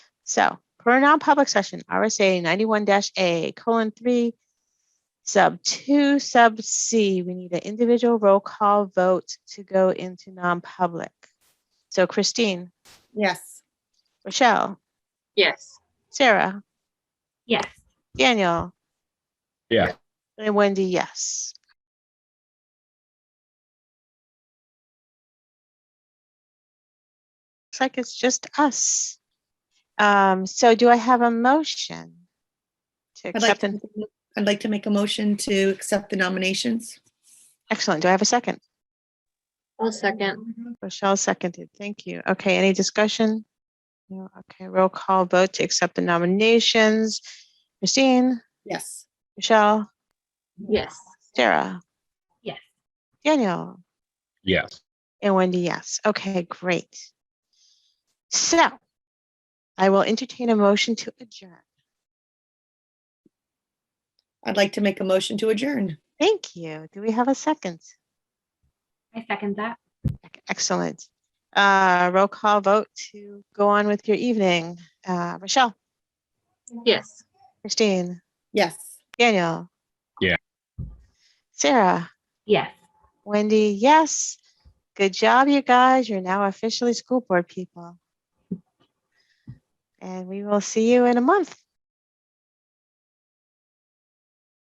So for a non-public session, RSA ninety-one A colon three, sub two, sub C, we need an individual roll call vote to go into non-public. So Christine, Yes. Rochelle, Yes. Sarah, Yes. Daniel. Yeah. And Wendy, yes. Looks like it's just us. Um, so do I have a motion? To I'd like, accept, to, an I'd like to make a motion to accept the nominations. excellent. Do I have a second? I'll second. Rochelle seconded. Thank you. Okay, any discussion? No, okay, roll call vote to accept the nominations. Christine, Yes. Michelle, Yes. Sarah. Yes. Daniel. Yes. And Wendy, yes. Okay, great. So I will entertain a motion to adjourn. I'd like to make a motion to adjourn. Thank you. Do we have a second? I second that. Excellent. Uh, roll call vote to go on with your evening. Uh, Rochelle, Yes. Christine, Yes. Daniel. Yeah. Sarah, Yes. Wendy, yes. Good job, you guys. You're now officially school board people. And we will see you in a month.